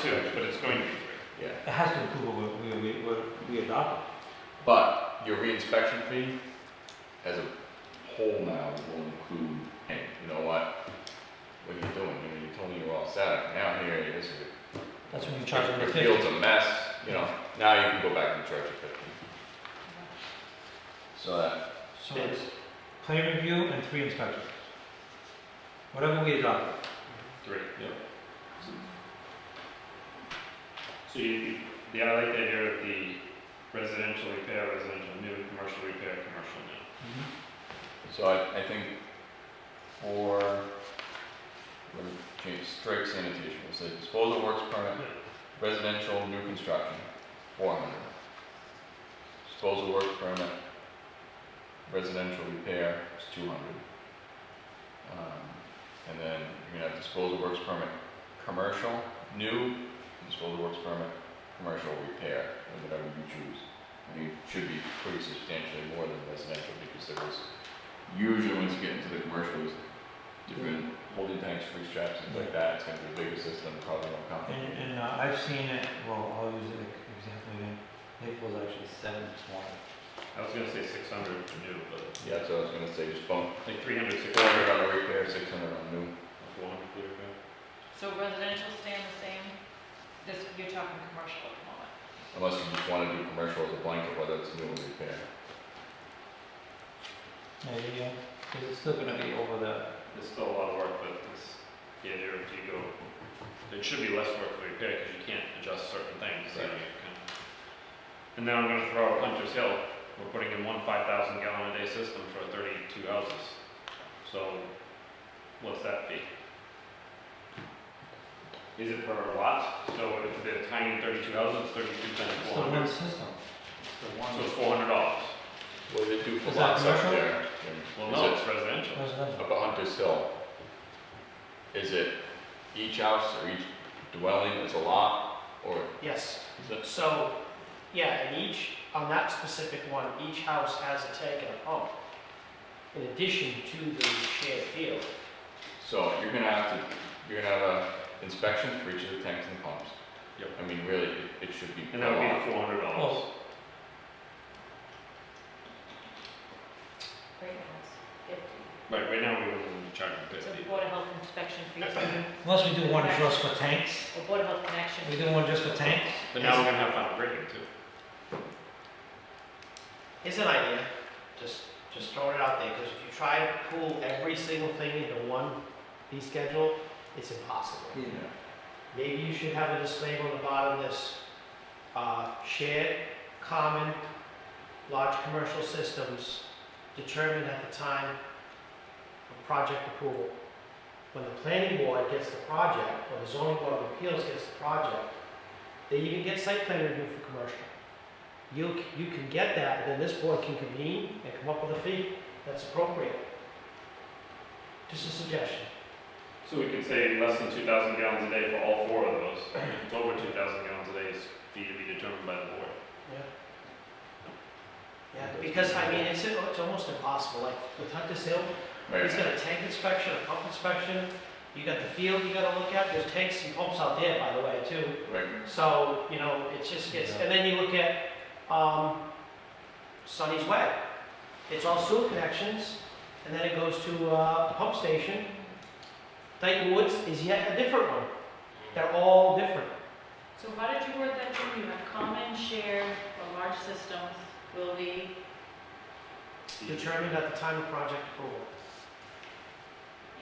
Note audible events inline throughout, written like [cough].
two, but it's going to be three. yeah. It has to improve what we, we, what we adopted. But your reinspection fee as a whole now will include, hey, you know what? What are you doing? You know, you told me you were all set. Now here it is. That's when you charge them the Your fifty. field's a mess, you know, now you can go back and charge it fifty. So that, So it's plan review and three inspections. Whatever we adopted. Three. Yep. So you, you- the, I like the idea of the residential repair, residential new, commercial repair, commercial new. Mm-hmm. so I, I think for, we're gonna change straight sanitation, we'll say disposal works permit, residential new construction, four hundred. Disposal work permit, residential repair is two hundred. Um, and then you're gonna have disposal works permit, commercial, new, disposal works permit, commercial repair, or whatever you choose. And it should be pretty substantially more than residential, because there was, usually when you get into the commercial, it's different holding tanks, free straps, things like that, it's gonna be a bigger system, probably more And, complicated. and uh, I've seen it, well, I'll use an example again. Naples actually seven twenty. I was gonna say six hundred for new, but Yeah, so I was gonna say, just bump like three hundred, six Four hundred hundred, on the repair, six hundred on new. four hundred for repair. So residential staying the same, this, you're talking commercial at the moment. Unless you just wanna do commercial as a blanket, whether it's new or repair. Yeah, yeah, yeah, cause it's still gonna be over the, There's still a lot of work, but it's, the idea of you go, it should be less work for repair, cause you can't adjust certain things, so you Right. can. And then I'm gonna throw out Hunter's Hill, we're putting in one five thousand gallon a day system for thirty-two houses. So, what's that fee? Is it per lot? So if they're tiny thirty-two houses, thirty-two times it's the four one hundred, system. It's the so one it's four hundred dollars. What do they do for Is that lots up commercial? there? Well, Is no, it it's residential. residential. Up at Hunter's Hill, is it each house or each dwelling is a lot, or Yes, is it? so, yeah, and each, on that specific one, each house has a tank and a pump. In addition to the shared field, So you're gonna have to, you're gonna have a inspection for each of the tanks and pumps. Yep. I mean, really, it- it should be And per that would lot. be four hundred dollars. Well, Great house, fifty. Right, right now we wouldn't charge them So fifty. Board of Health inspection fees, or unless we do one just for tanks, Board of Health connection. we do one just for tanks. But now we're gonna have final grading too. is an idea, just, just throwing it out there, because if you try to pull every single thing into one fee schedule, it's impossible. Yeah. Maybe you should have a disclaimer on the bottom of this, uh, shared, common, large commercial systems determined at the time of project approval. When the planning board gets the project, or the zoning board of appeals gets the project, they even get site plan review for commercial. You, c- you can get that, and then this board can convene and come up with a fee that's appropriate. Just a suggestion. So we could say less than two thousand gallons a day for all four of those. If it's over two thousand gallons a day, it's fee to be determined by the board. Yeah. Yeah, because I mean, it's, it's almost impossible, like with Hunter's Hill, Right, he's got a tank inspection, a pump inspection, you got the field you gotta look at, there's tanks and pumps out there, by the way, too. right. So, you know, it just gets, and then you look at, um, Sunny's Way. It's all sewer connections, and then it goes to, uh, the pump station. Dyton Woods is yet a different one, they're all different. So how did you word that in? You have common, shared, or large systems will be, determined at the time of project approval. [laughs]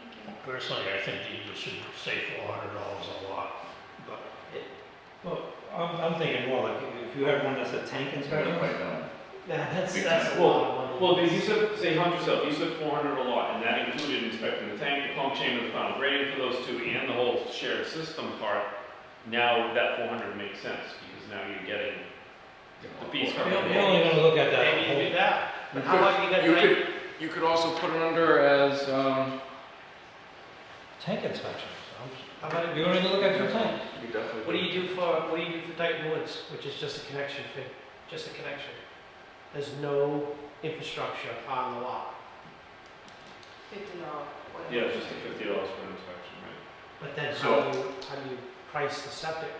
thank you. Personally, I think you should say four hundred dollars a lot, but Well, I'm, I'm thinking more like, if you have one that's a tank Right, inspection, right, no. Yeah, that's, Big that's time. a lot of money. Well, you said, say hunt yourself, you said four hundred a lot, and that included inspecting the tank, the pump chamber, the final grading for those two, and the whole shared system part. Now that four hundred makes sense, because now you're getting the fees we covered. don't- we're only gonna look at that Maybe you do whole. that, but how You about you You got could, rate? you could also put it under as, um, Tank inspection. How about, You're only gonna look at two tanks. you definitely. what do you do for, what do you do for Dyton Woods, which is just a connection fee, just a connection? There's no infrastructure on the lot, fifty dollars. Yeah, it's just the fifty dollars for inspection, right? but then So- how do you, how do you price the septic?